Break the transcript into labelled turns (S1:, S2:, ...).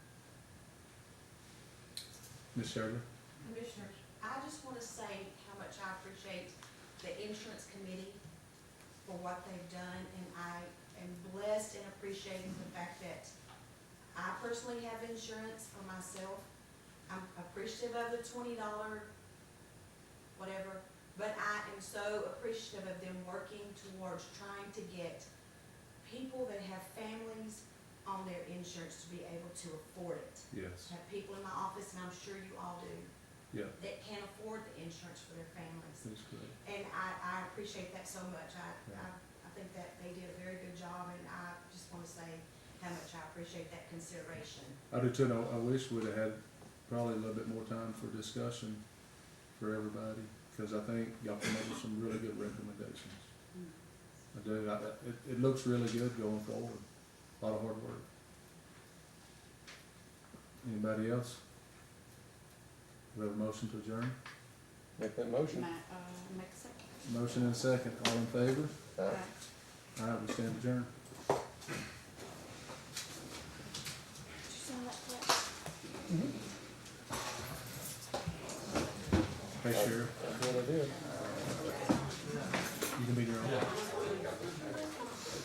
S1: Ms. Sherman?
S2: Commissioners, I just want to say how much I appreciate the insurance committee for what they've done, and I am blessed and appreciating the fact that I personally have insurance for myself. I'm appreciative of the twenty dollar, whatever, but I am so appreciative of them working towards trying to get people that have families on their insurance to be able to afford it.
S1: Yes,
S2: I have people in my office, and I'm sure you all do,
S1: yeah,
S2: that can't afford the insurance for their families.
S1: that's correct.
S2: And I, I appreciate that so much. I, I,
S1: Yeah.
S2: I think that they did a very good job and I just wanna say how much I appreciate that consideration.
S1: I do too, and I, I wish we'd have had probably a little bit more time for discussion for everybody, because I think y'all come up with some really good recommendations. I do, I, I- it, it looks really good going forward, a lot of hard work. Anybody else? We have a motion to adjourn,
S3: Make that motion.
S4: Ma- uh, make a second.
S1: motion and second, all in favor?
S3: Aye.
S4: Aye.
S1: All right, we stand adjourned.
S4: Did you send that clip?
S1: Hey, Sheriff,
S3: That's what I did.
S1: you can be your own.